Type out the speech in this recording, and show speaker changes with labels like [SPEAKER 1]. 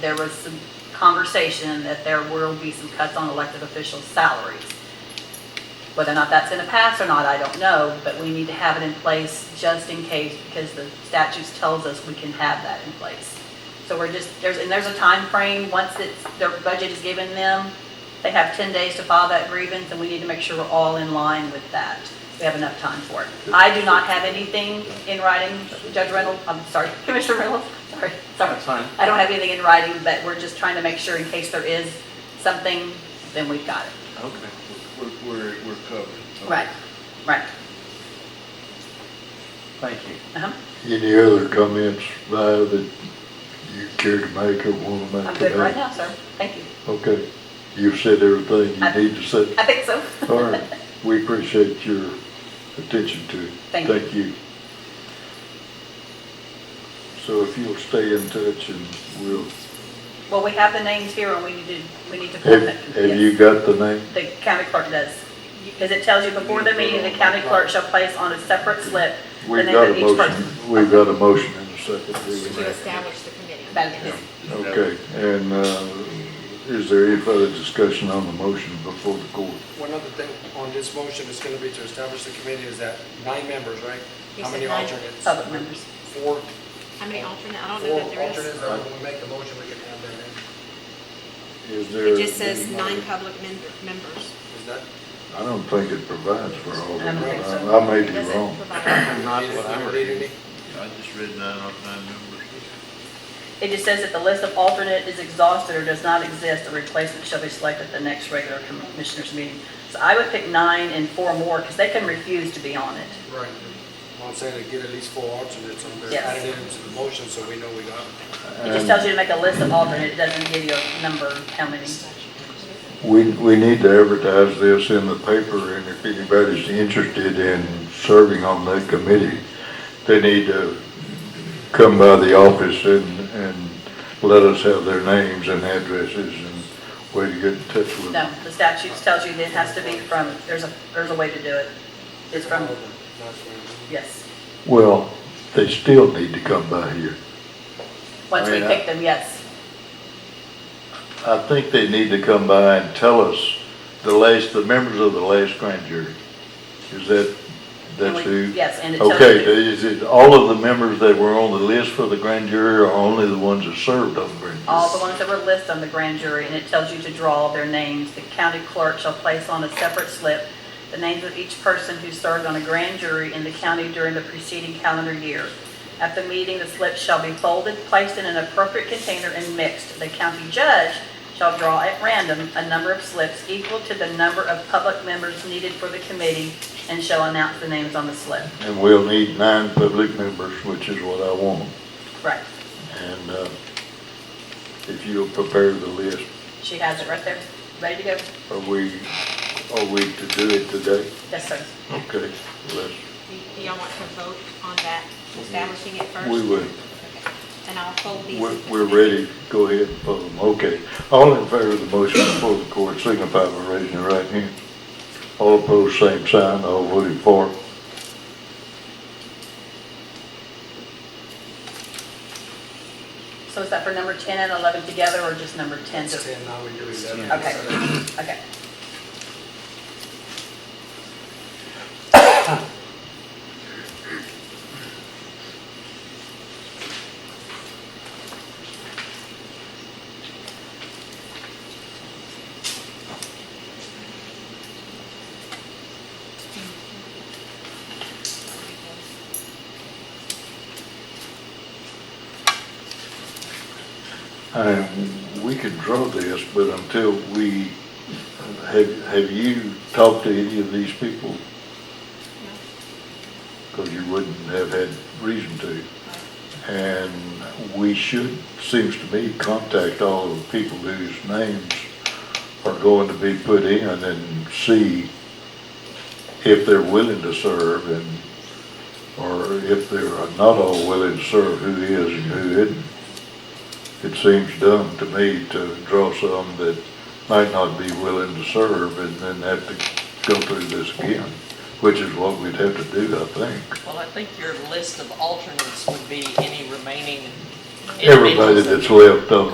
[SPEAKER 1] there was some conversation that there will be some cuts on elected officials' salaries. Whether or not that's going to pass or not, I don't know, but we need to have it in place just in case, because the statutes tells us we can have that in place. So we're just, there's, and there's a time frame. once it's, their budget is given them, they have 10 days to file that grievance, and we need to make sure we're all in line with that. We have enough time for it. I do not have anything in writing, Judge Reynolds, I'm sorry, Commissioner Reynolds, sorry, sorry.
[SPEAKER 2] That's fine.
[SPEAKER 1] I don't have anything in writing, but we're just trying to make sure in case there is something, then we've got it.
[SPEAKER 2] Okay.
[SPEAKER 3] We're, we're, we're covered.
[SPEAKER 1] Right.
[SPEAKER 2] Thank you.
[SPEAKER 1] Uh-huh.
[SPEAKER 4] Any other comments, Vi, that you care to make or want to
[SPEAKER 1] I'm
[SPEAKER 4] make
[SPEAKER 1] good right
[SPEAKER 4] today?
[SPEAKER 1] now, sir. Thank you.
[SPEAKER 4] Okay, you've said everything
[SPEAKER 1] I-
[SPEAKER 4] you need to say.
[SPEAKER 1] I think so.
[SPEAKER 4] All right, we appreciate your attention to it.
[SPEAKER 1] Thank you.
[SPEAKER 4] Thank you. So if you'll stay in touch and we'll,
[SPEAKER 1] Well, we have the names here, and we need to, we need to.
[SPEAKER 4] have, have
[SPEAKER 1] Yes.
[SPEAKER 4] you got the name?
[SPEAKER 1] The county clerk does. Because it tells you before the meeting, the county clerk shall place on a separate slip the
[SPEAKER 4] We've
[SPEAKER 1] name
[SPEAKER 4] got
[SPEAKER 1] of
[SPEAKER 4] a
[SPEAKER 1] each person.
[SPEAKER 4] motion, we've got a motion in a second. do we
[SPEAKER 5] To
[SPEAKER 4] not?
[SPEAKER 5] establish the committee.
[SPEAKER 1] That is-
[SPEAKER 4] Okay, and, uh, is there any further discussion on the motion before the court?
[SPEAKER 6] One other thing on this motion is going to be to establish the committee is that nine members, right?
[SPEAKER 5] He
[SPEAKER 6] How
[SPEAKER 5] said
[SPEAKER 6] many
[SPEAKER 5] nine.
[SPEAKER 6] alternates?
[SPEAKER 1] Public members.
[SPEAKER 6] Four,
[SPEAKER 5] How many alternate, I don't know
[SPEAKER 6] four
[SPEAKER 5] that there
[SPEAKER 6] alternates,
[SPEAKER 5] is.
[SPEAKER 6] or when we make the motion, we can have that in.
[SPEAKER 4] Is there?
[SPEAKER 5] It just says nine public men- members.
[SPEAKER 6] Is that?
[SPEAKER 4] I don't think it provides for all of
[SPEAKER 1] I don't
[SPEAKER 4] them.
[SPEAKER 1] think
[SPEAKER 4] I
[SPEAKER 1] so.
[SPEAKER 4] I may
[SPEAKER 5] It
[SPEAKER 4] be
[SPEAKER 5] doesn't
[SPEAKER 4] wrong.
[SPEAKER 5] provide-
[SPEAKER 2] Not what I
[SPEAKER 6] You
[SPEAKER 2] heard.
[SPEAKER 6] read any?
[SPEAKER 3] I just read nine off nine numbers.
[SPEAKER 1] It just says that the list of alternate is exhausted or does not exist, a replacement shall be selected at the next regular commissioners meeting. So I would pick nine and four more, because they can refuse to be on it.
[SPEAKER 6] Right. Well, I'm saying to get at least four alternates on there,
[SPEAKER 1] Yes.
[SPEAKER 6] add it into the motion so we know we got it.
[SPEAKER 1] It
[SPEAKER 4] Um,
[SPEAKER 1] just tells you to make a list of alternate, it doesn't give you a number, how many.
[SPEAKER 4] We, we need to advertise this in the paper, and if anybody's interested in serving on that committee, they need to come by the office and, and let us have their names and addresses and way to get in touch with
[SPEAKER 1] No,
[SPEAKER 4] them.
[SPEAKER 1] the statutes tells you that it has to be from, there's a, there's a way to do it. It's from,
[SPEAKER 6] That's fine.
[SPEAKER 1] yes.
[SPEAKER 4] Well, they still need to come by here.
[SPEAKER 1] Once we
[SPEAKER 4] Right.
[SPEAKER 1] pick them, yes.
[SPEAKER 4] I think they need to come by and tell us the last, the members of the last grand jury. Is that,
[SPEAKER 1] And
[SPEAKER 4] that's
[SPEAKER 1] we-
[SPEAKER 4] who?
[SPEAKER 1] Yes, and it tells
[SPEAKER 4] Okay,
[SPEAKER 1] you.
[SPEAKER 4] is it all of the members that were on the list for the grand jury or only the ones that served on the grand jury?
[SPEAKER 1] all the ones that were listed on the grand jury, and it tells you to draw their names. The county clerk shall place on a separate slip the names of each person who served on a grand jury in the county during the preceding calendar year. At the meeting, the slips shall be folded, placed in an appropriate container, and mixed. The county judge shall draw at random a number of slips equal to the number of public members needed for the committee and shall announce the names on the slip.
[SPEAKER 4] And we'll need nine public members, which is what I want.
[SPEAKER 1] Right.
[SPEAKER 4] And, uh, if you'll prepare the list,
[SPEAKER 1] She has it right there, ready to go.
[SPEAKER 4] are we, are we to do it today?
[SPEAKER 1] Yes, sir.
[SPEAKER 4] Okay, let's,
[SPEAKER 5] Do do y'all want to vote on that, establishing it first?
[SPEAKER 4] we would.
[SPEAKER 5] Okay. And I'll fold these.
[SPEAKER 4] We're, we're ready, go ahead and vote them, okay. All in favor of the motion before the court, signify by raising your right hand. All opposed, same sign, all voting for.
[SPEAKER 1] So is that for number 10 and 11 together, or just number 10?
[SPEAKER 6] It's ten, now we do eleven.
[SPEAKER 1] Okay. Okay.
[SPEAKER 4] And we can draw this, but until we, have, have you talked to any of these people? Because you wouldn't have had reason to. And we should, seems to me, contact all of the people whose names are going to be put in and see if they're willing to serve and, or if they're not all willing to serve, who is and who isn't. It seems dumb to me to draw some that might not be willing to serve and then have to go through this again, which is what we'd have to do, I think.
[SPEAKER 7] Well, I think your list of alternates would be any remaining individuals
[SPEAKER 4] Everybody
[SPEAKER 7] that-
[SPEAKER 4] that's left on the